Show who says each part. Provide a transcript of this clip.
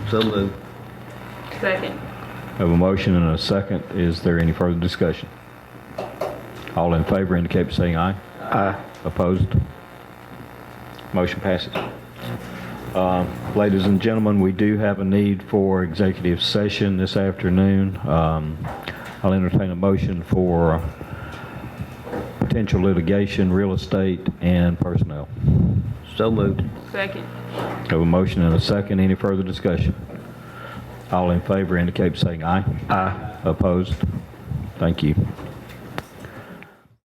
Speaker 1: So moved.
Speaker 2: Second.
Speaker 3: Have a motion and a second. Is there any further discussion? All in favor indicate by saying aye. Aye. Opposed? Motion passes. Um, Ladies and gentlemen, we do have a need for executive session this afternoon. Um, I'll entertain a motion for potential litigation, real estate, and personnel.
Speaker 1: So moved.
Speaker 2: Second.
Speaker 3: Have a motion and a second. Any further discussion? All in favor indicate by saying aye. Aye. Opposed? Thank you.